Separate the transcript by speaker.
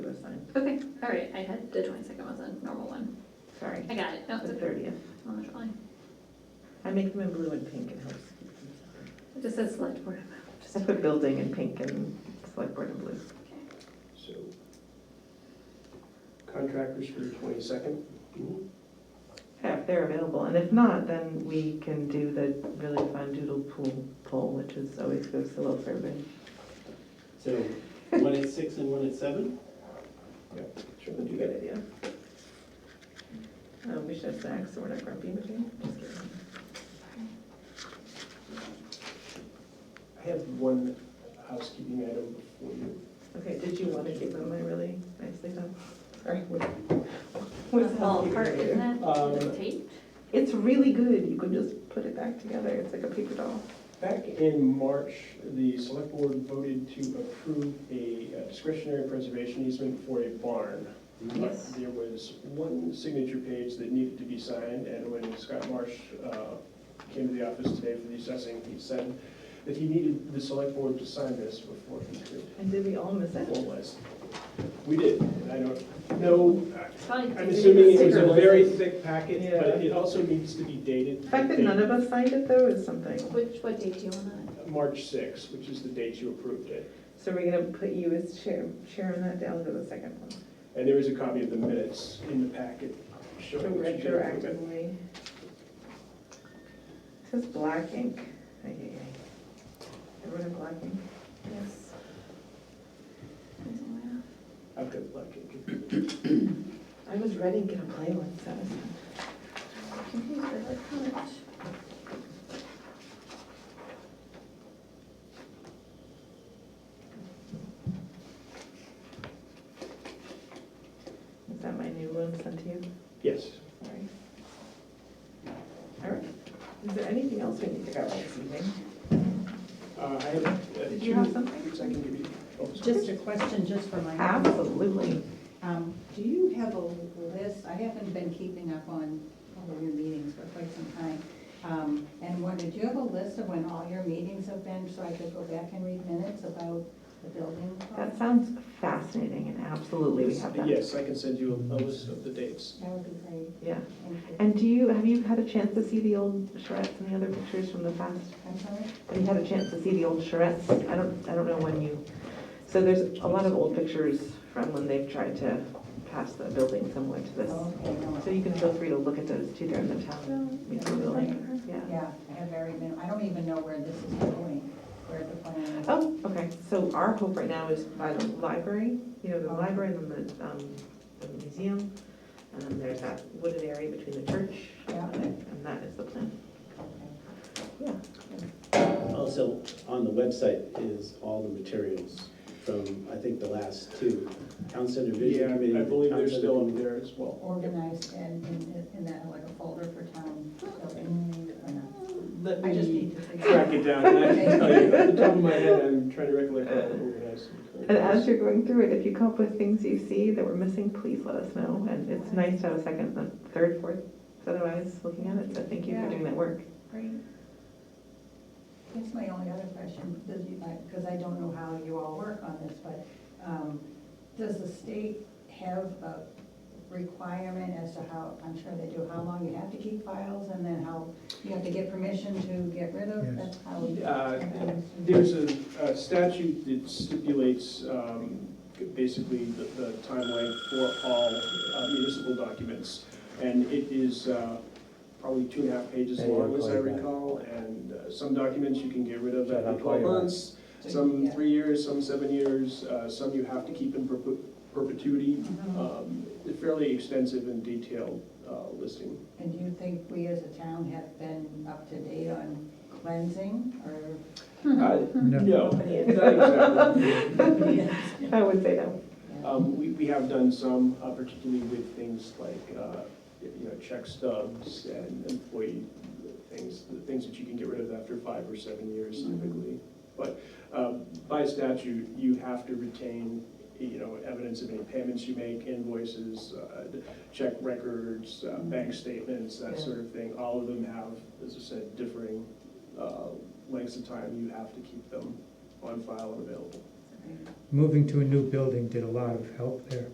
Speaker 1: Okay, all right, I had, the twenty-second was a normal one.
Speaker 2: Sorry,
Speaker 1: I got it, no, it's
Speaker 2: the
Speaker 1: okay.
Speaker 2: thirtieth.
Speaker 1: I'm not trying.
Speaker 2: I make them in blue and pink, it helps. keep them
Speaker 1: It just says select board.
Speaker 2: separate. I put building in pink and select board in blue.
Speaker 3: So contractors for the twenty-second?
Speaker 2: Yeah, if they're available, and if not, then we can do the really fun doodle pool poll, which is always goes so well for everybody.
Speaker 4: So one at six and one at seven?
Speaker 3: Sure,
Speaker 2: Would be a good idea. Uh, we should have snacks, so we're not grumpy, but just kidding.
Speaker 3: I have one housekeeping item before you.
Speaker 2: Okay, did you want to give them my really nicely done? Sorry. what-
Speaker 1: It's
Speaker 2: What's
Speaker 1: all
Speaker 2: happening
Speaker 1: part,
Speaker 2: here?
Speaker 1: isn't it?
Speaker 3: Um,
Speaker 1: The tape?
Speaker 2: It's really good, you can just put it back together, it's like a paper doll.
Speaker 3: Back in March, the select board voted to approve a discretionary preservation easement for a barn.
Speaker 2: Yes.
Speaker 3: There was one signature page that needed to be signed, and when Scott Marsh uh, came to the office today for the assessing, he said that he needed the select board to sign this before he could
Speaker 2: And did we all miss it?
Speaker 3: formalize. We did, and I don't know,
Speaker 1: It's probably-
Speaker 3: I'm assuming it was a
Speaker 2: Secret.
Speaker 3: very thick packet,
Speaker 2: Yeah.
Speaker 3: but it also needs to be dated.
Speaker 2: The fact that none of us signed it though is something.
Speaker 1: Which, what date do you wanna,
Speaker 3: March sixth, which is the date you approved it.
Speaker 2: So we're gonna put you as chair, chair on that down to the second one.
Speaker 3: And there is a copy of the minutes in the packet showing what you did approve it.
Speaker 2: Retroactively. Says black ink. Ay, ay, ay. Everyone in black ink?
Speaker 1: yes.
Speaker 3: I've got black ink.
Speaker 2: I was ready to get a play one, so. I was-
Speaker 1: Confused by that comment.
Speaker 2: Is that my new one sent to you?
Speaker 3: Yes,
Speaker 2: Sorry. All right. Is there anything else we need to cover this evening?
Speaker 3: Uh, I have. uh,
Speaker 2: Did you have
Speaker 3: two
Speaker 2: something?
Speaker 3: things I can give you. Oh, sorry.
Speaker 5: Just a question, just for my,
Speaker 2: Absolutely.
Speaker 5: um, do you have a list, I haven't been keeping up on all of your meetings for quite some time. Um, and what, did you have a list of when all your meetings have been, so I could go back and read minutes about the building?
Speaker 2: That sounds fascinating and absolutely we have that.
Speaker 3: Yes, I can send you a a list of the dates.
Speaker 5: That would be great,
Speaker 2: Yeah.
Speaker 5: thank you.
Speaker 2: And do you, have you had a chance to see the old charrettes and the other pictures from the past?
Speaker 5: I'm sorry?
Speaker 2: Have you had a chance to see the old charrettes? I don't, I don't know when you, so there's a lot of old pictures from when they've tried to pass the building similar to this.
Speaker 5: Oh, okay, no.
Speaker 2: So you can feel free to look at those too, they're in the town museum building, yeah.
Speaker 5: Yeah, I have very, min- I don't even know where this is going, where the plan is.
Speaker 2: Oh, okay, so our hope right now is by the library, you know, the
Speaker 5: Oh.
Speaker 2: library and then the, um, the museum. And then there's that wooded area between the church
Speaker 5: Yeah.
Speaker 2: and it, and that is the plan. Yeah.
Speaker 4: Also, on the website is all the materials from, I think, the last two. Town Center Vision
Speaker 3: Yeah,
Speaker 4: Committee.
Speaker 3: I believe they're
Speaker 4: Town Center-
Speaker 3: still up there as well.
Speaker 5: Organized and in, in that, like a folder for town building, or not?
Speaker 3: Let
Speaker 5: I just
Speaker 3: me
Speaker 5: need to figure out.
Speaker 3: track it down, and I can tell you, at the top of my head, I'm trying to recollect how to organize.
Speaker 2: And as you're going through it, if you come up with things you see that were missing, please let us know. And it's nice to have a second, a third, fourth set of eyes looking at it, so thank you for
Speaker 5: Yeah.
Speaker 2: doing that work.
Speaker 5: Great. That's my only other question, does you, because I don't know how you all work on this, but um, does the state have a requirement as to how, I'm sure they do, how long you have to keep files and then how you have to get permission to get rid of?
Speaker 6: Yes.
Speaker 5: That's how.
Speaker 3: Uh, There's a a statute that stipulates um, basically the the timeline for all uh, municipal documents. And it is uh, probably two and a half pages
Speaker 6: Yeah, you're
Speaker 3: long, as I
Speaker 6: quite right.
Speaker 3: recall. And uh, some documents you can get rid of
Speaker 6: Yeah,
Speaker 3: after
Speaker 6: I'm
Speaker 3: 12
Speaker 6: quite right.
Speaker 3: months, some
Speaker 5: Yeah.
Speaker 3: three years, some seven years, uh, some you have to keep in perpe- perpetuity.
Speaker 5: Mhm.
Speaker 3: Um, Fairly extensive and detailed uh, listing.
Speaker 5: And do you think we as a town have been up to date on cleansing or?
Speaker 3: Uh,
Speaker 6: No.
Speaker 3: No, not exactly.
Speaker 2: I would say no.
Speaker 3: Um, we, we have done some, uh, particularly with things like, uh, you know, check stubs and employee things, the things that you can get rid of after five or seven years
Speaker 5: Mhm.
Speaker 3: typically. But, um, by statute, you have to retain, you know, evidence of any payments you make, invoices, uh, check records, uh, bank statements,
Speaker 2: Yeah.
Speaker 3: that sort of thing. All of them have, as I said, differing, uh, lengths of time you have to keep them on file and available.
Speaker 6: Moving to a new building did a lot of help there.